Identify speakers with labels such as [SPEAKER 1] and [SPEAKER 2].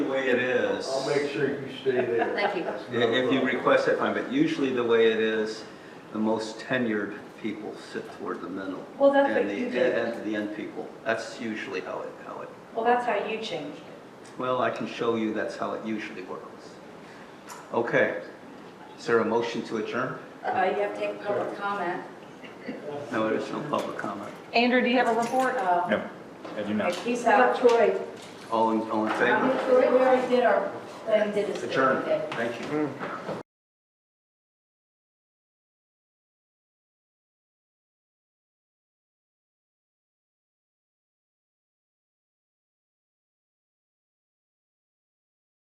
[SPEAKER 1] way it is.
[SPEAKER 2] I'll make sure you stay there.
[SPEAKER 3] Thank you.
[SPEAKER 2] That's
[SPEAKER 1] i-
[SPEAKER 2] no
[SPEAKER 1] If you
[SPEAKER 2] problem.
[SPEAKER 1] request it, fine, but usually the way it is, the most tenured people sit toward the middle.
[SPEAKER 4] Well, that's
[SPEAKER 1] and
[SPEAKER 4] what
[SPEAKER 1] the-
[SPEAKER 4] you did.
[SPEAKER 1] And the end people. That's usually how it, how it,
[SPEAKER 4] Well, that's how you changed it.
[SPEAKER 1] well, I can show you that's how it usually works. Okay. Is there a motion to adjourn?
[SPEAKER 3] Uh, you have to take public comment.
[SPEAKER 1] No, there's no public comment.
[SPEAKER 5] Andrew, do you have a report?
[SPEAKER 4] Uh,
[SPEAKER 6] No, I do not.
[SPEAKER 3] Peace
[SPEAKER 4] About
[SPEAKER 3] out.
[SPEAKER 4] Troy,
[SPEAKER 1] All in, all in
[SPEAKER 3] Um,
[SPEAKER 1] favor?
[SPEAKER 3] We already did our, thing, did this.
[SPEAKER 1] Adjourn. Thank you.